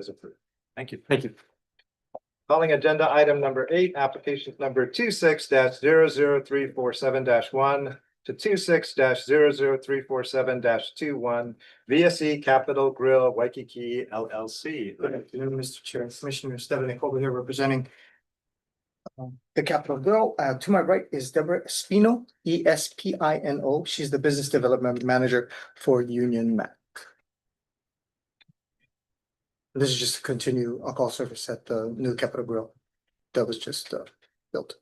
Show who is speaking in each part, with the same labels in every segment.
Speaker 1: is approved. Thank you.
Speaker 2: Thank you.
Speaker 1: Calling agenda item number eight, application number two six dash zero zero three four seven dash one to two six dash zero zero three four seven dash two one VSE Capital Grill Waikiki LLC.
Speaker 3: Good afternoon, Mr. Chair and Commissioner Stephanie Colby here representing um, the Capitol Girl. Uh, to my right is Deborah Espino, E S P I N O. She's the Business Development Manager for Union Mac. This is just to continue a call service at the new Capitol Grill that was just uh, built.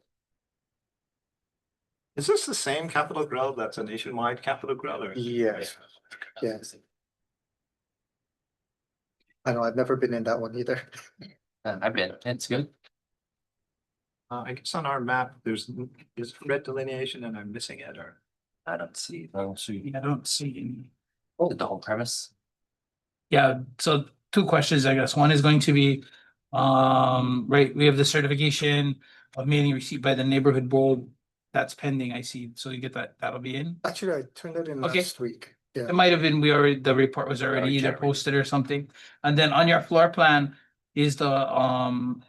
Speaker 1: Is this the same Capital Grill that's a nationwide Capital Grill or?
Speaker 3: Yes, yes. I know, I've never been in that one either.
Speaker 4: Um,
Speaker 2: Uh, I've been, it's good.
Speaker 1: Uh, I guess on our map, there's, is red delineation and I'm missing it or?
Speaker 2: I don't see, I don't see
Speaker 5: I don't see any.
Speaker 3: Oh.
Speaker 2: the whole premise.
Speaker 5: Yeah, so two questions, I guess. One is going to be, um, right, we have the certification of meeting received by the neighborhood board. That's pending, I see. So you get that, that'll be in.
Speaker 3: Actually, I turned that in
Speaker 5: Okay.
Speaker 3: last week. Yeah.
Speaker 5: It might have been, we already, the report was already either
Speaker 2: Already generated.
Speaker 5: posted or something. And then on your floor plan is the, um,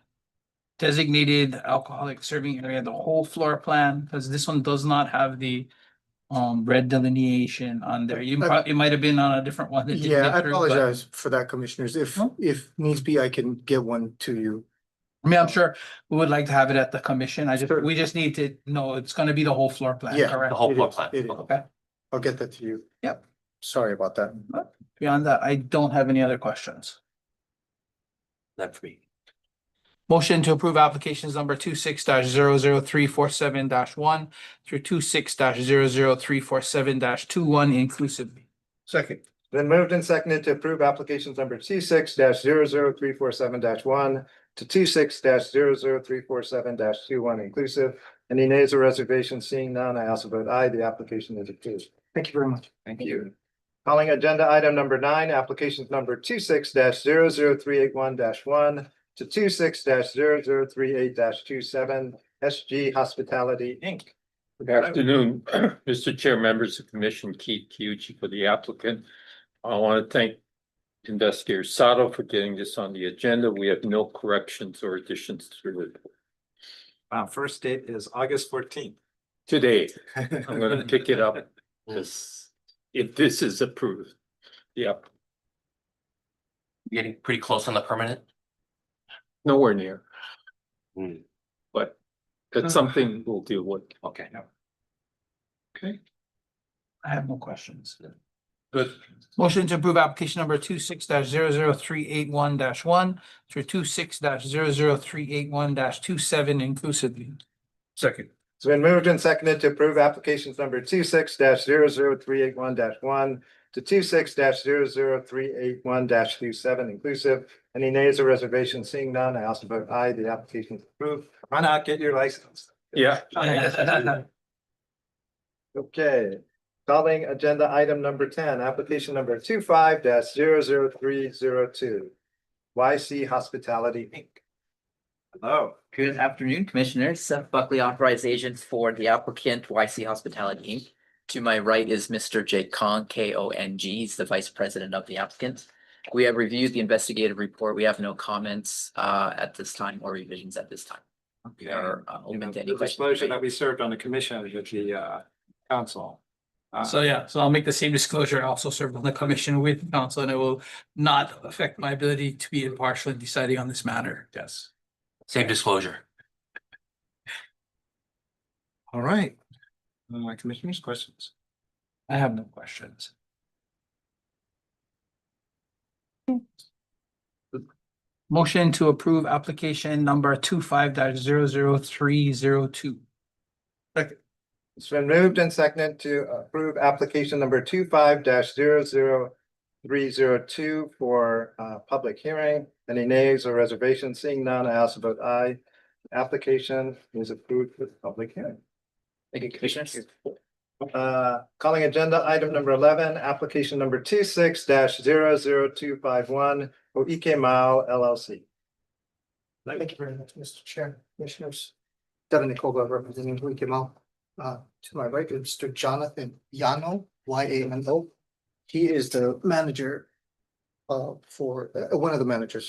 Speaker 5: designated alcoholic serving area, the whole floor plan, because this one does not have the, um, red delineation on there. You,
Speaker 3: Uh,
Speaker 5: prob- it might have been on a different one. that didn't
Speaker 3: Yeah,
Speaker 5: get
Speaker 3: I
Speaker 5: through, but-
Speaker 3: apologize for that, commissioners. If,
Speaker 5: No.
Speaker 3: if needs be, I can get one to you.
Speaker 5: I mean, I'm sure we would like to have it at the commission. I just,
Speaker 3: Sure.
Speaker 5: we just need to know it's gonna be the whole floor plan,
Speaker 3: Yeah.
Speaker 5: correct?
Speaker 2: The whole
Speaker 3: It
Speaker 2: floor
Speaker 3: is,
Speaker 2: plan.
Speaker 3: it is.
Speaker 5: Okay,
Speaker 3: I'll get that to you.
Speaker 5: Yep.
Speaker 3: Sorry about that.
Speaker 5: beyond that, I don't have any other questions.
Speaker 2: That for me.
Speaker 5: Motion to approve applications number two six dash zero zero three four seven dash one through two six dash zero zero three four seven dash two one inclusive.
Speaker 3: Second.
Speaker 1: Then moved and seconded to approve applications number two six dash zero zero three four seven dash one to two six dash zero zero three four seven dash two one inclusive. Any nays or reservations? Seeing none, I also vote aye. The application is approved.
Speaker 3: Thank you very much.
Speaker 1: Thank you. Calling agenda item number nine, applications number two six dash zero zero three eight one dash one to two six dash zero zero three eight dash two seven SG Hospitality Inc.
Speaker 6: Good afternoon, Mr. Chair, members of the Commission, Keith Kyuchi for the applicant. I want to thank investigator Sato for getting this on the agenda. We have no corrections or additions to the report.
Speaker 1: Our first date is August fourteenth.
Speaker 6: Today, I'm going to pick it up this, if this is approved. Yep,
Speaker 2: Getting pretty close on the permanent.
Speaker 6: nowhere near,
Speaker 2: Hmm,
Speaker 6: but that's something we'll deal with.
Speaker 2: Okay.
Speaker 6: Okay.
Speaker 5: I have no questions.
Speaker 6: Good.
Speaker 5: Motion to approve application number two six dash zero zero three eight one dash one through two six dash zero zero three eight one dash two seven inclusively.
Speaker 6: Second.
Speaker 1: It's been moved and seconded to approve applications number two six dash zero zero three eight one dash one to two six dash zero zero three eight one dash two seven inclusive. Any nays or reservations? Seeing none, I also vote aye. The application is approved. Why not get your license?
Speaker 6: Yeah,
Speaker 5: Oh,
Speaker 1: Okay, calling agenda item number ten, application number two five dash zero zero three zero two. YC Hospitality Inc. Hello.
Speaker 4: Good afternoon, Commissioners. Seth Buckley, authorized agent for the applicant YC Hospitality Inc. To my right is Mr. Jake Kong, K O N G. He's the vice president of the applicant. We have reviewed the investigative report. We have no comments uh, at this time or revisions at this time. We are uh,
Speaker 1: You know,
Speaker 4: open to any
Speaker 1: The
Speaker 4: questions.
Speaker 1: disclosure that we served on the commission with the uh council. Uh,
Speaker 5: So yeah, so I'll make the same disclosure. I also served on the commission with council and it will not affect my ability to be impartial in deciding on this matter. Yes.
Speaker 2: Same disclosure.
Speaker 1: All right. Uh, commissioners, questions?
Speaker 5: I have no questions. Motion to approve application number two five dash zero zero three zero two.
Speaker 1: It's been moved and seconded to approve application number two five dash zero zero three zero two for uh public hearing. Any nays or reservations? Seeing none, I also vote aye. Application is approved with public hearing.
Speaker 4: Thank you, Commissioners.
Speaker 1: Uh, calling agenda item number eleven, application number two six dash zero zero two five one E for EK Mile LLC.
Speaker 3: Thank you very much, Mr. Chair, Commissioners. Devin Nicola representing Hui Kimal. Uh, to my right is Mr. Jonathan Yano, Y A N O. He is the manager uh, for, uh, one of the managers